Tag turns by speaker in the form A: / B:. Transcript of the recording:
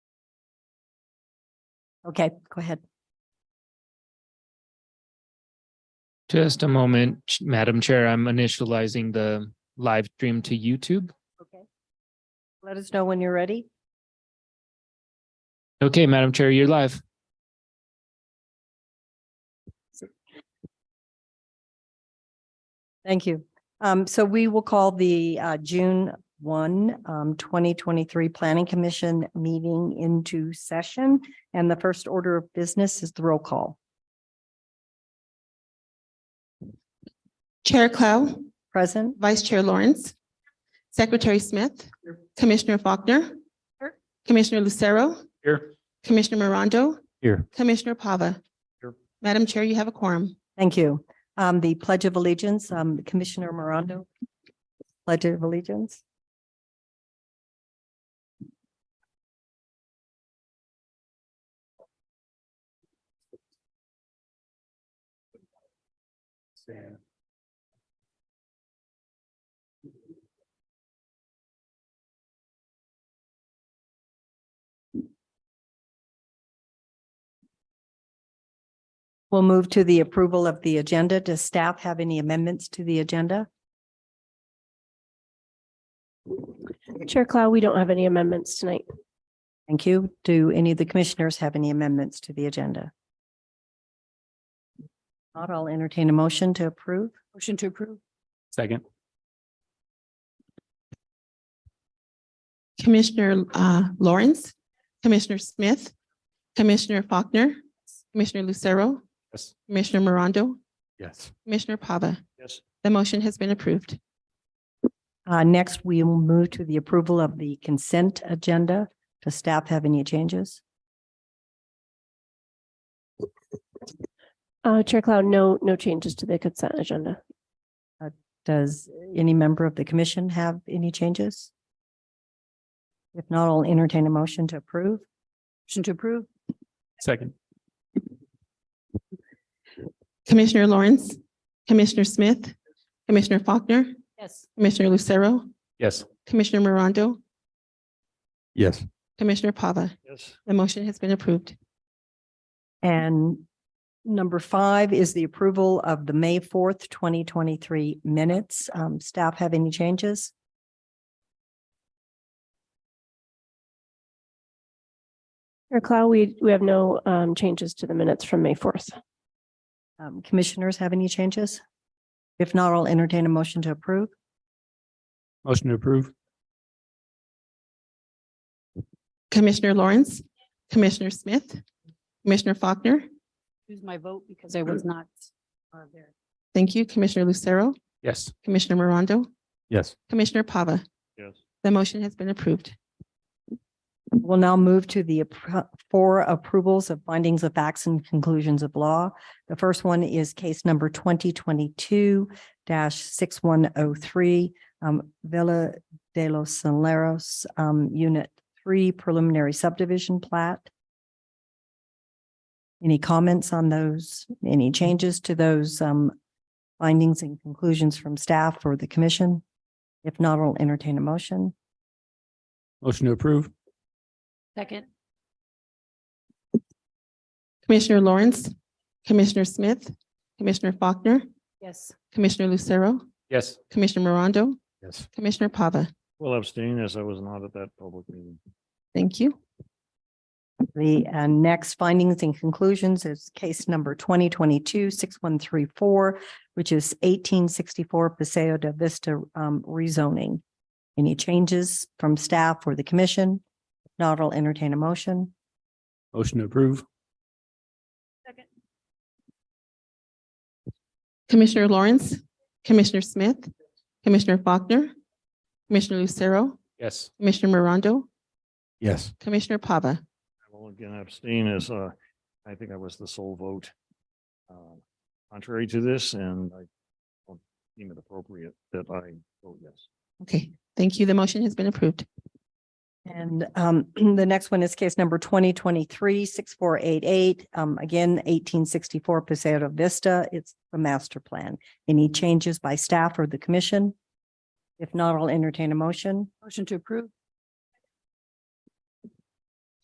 A: Okay, go ahead.
B: Just a moment, Ch- Madam Chair. I'm initializing the live stream to YouTube.
A: Okay. Let us know when you're ready.
B: Okay, Madam Chair, you're live.
A: Thank you. Um, so we will call the uh, June 1, um, 2023 Planning Commission meeting into session. And the first order of business is the roll call.
C: Chair Clow,
A: Present?
C: Vice Chair Lawrence, Secretary Smith, Commissioner Faulkner,
A: Here.
C: Commissioner Lucero,
B: Here.
C: Commissioner Morondo,
B: Here.
C: Commissioner Pava.
B: Here.
C: Madam Chair, you have a quorum.
A: Thank you. Um, the Pledge of Allegiance, um, Commissioner Morondo. Pledge of Allegiance. We'll move to the approval of the agenda. Does staff have any amendments to the agenda?
D: Chair Clow, we don't have any amendments tonight.
A: Thank you. Do any of the commissioners have any amendments to the agenda? Not, I'll entertain a motion to approve. Motion to approve.
B: Second.
C: Commissioner uh, Lawrence, Commissioner Smith, Commissioner Faulkner, Commissioner Lucero,
B: Yes.
C: Commissioner Morondo,
B: Yes.
C: Commissioner Pava.
B: Yes.
C: The motion has been approved.
A: Uh, next, we will move to the approval of the consent agenda. Does staff have any changes?
D: Uh, Chair Clow, no, no changes to the consent agenda.
A: Does any member of the commission have any changes? If not, I'll entertain a motion to approve. Motion to approve.
B: Second.
C: Commissioner Lawrence, Commissioner Smith, Commissioner Faulkner,
A: Yes.
C: Commissioner Lucero,
B: Yes.
C: Commissioner Morondo,
B: Yes.
C: Commissioner Pava.
B: Yes.
C: The motion has been approved.
A: And number five is the approval of the May fourth, twenty twenty-three minutes. Um, staff have any changes?
D: Chair Clow, we, we have no um, changes to the minutes from May 4th.
A: Um, commissioners have any changes? If not, I'll entertain a motion to approve.
B: Motion to approve.
C: Commissioner Lawrence, Commissioner Smith, Commissioner Faulkner,
E: choose my vote because I was not uh, there.
C: thank you, Commissioner Lucero,
B: Yes.
C: Commissioner Morondo,
B: Yes.
C: Commissioner Pava.
B: Yes.
C: The motion has been approved.
A: We'll now move to the appro- four approvals of findings of facts and conclusions of law. The first one is case number twenty twenty-two six one oh three, um, Villa de los Saleros, um, Unit Three Preliminary Subdivision Plat. Any comments on those? Any changes to those, um, findings and conclusions from staff or the commission? If not, I'll entertain a motion.
B: Motion to approve.
E: Second,
C: Commissioner Lawrence, Commissioner Smith, Commissioner Faulkner,
E: yes.
C: Commissioner Lucero,
B: Yes.
C: Commissioner Morondo,
B: Yes.
C: Commissioner Pava.
F: Will abstain as I was not at that public meeting.
C: Thank you.
A: The uh, next findings and conclusions is case number twenty twenty-two six one three four, which is eighteen sixty-four Paseo de Vista um, rezoning. Any changes from staff or the commission? If Not, I'll entertain a motion.
B: Motion to approve.
C: Commissioner Lawrence, Commissioner Smith, Commissioner Faulkner, Commissioner Lucero,
B: Yes.
C: Commissioner Morondo,
B: Yes.
C: Commissioner Pava.
F: I will again abstain as uh, I think I was the sole vote. uh, Contrary to this, and I don't deem it appropriate that I vote yes.
C: Okay, thank you. The motion has been approved.
A: And um, the next one is case number twenty twenty-three six four eight eight, um, again eighteen sixty-four Paseo de Vista. It's the master plan. Any changes by staff or the commission? If not, I'll entertain a motion.
E: Motion to approve,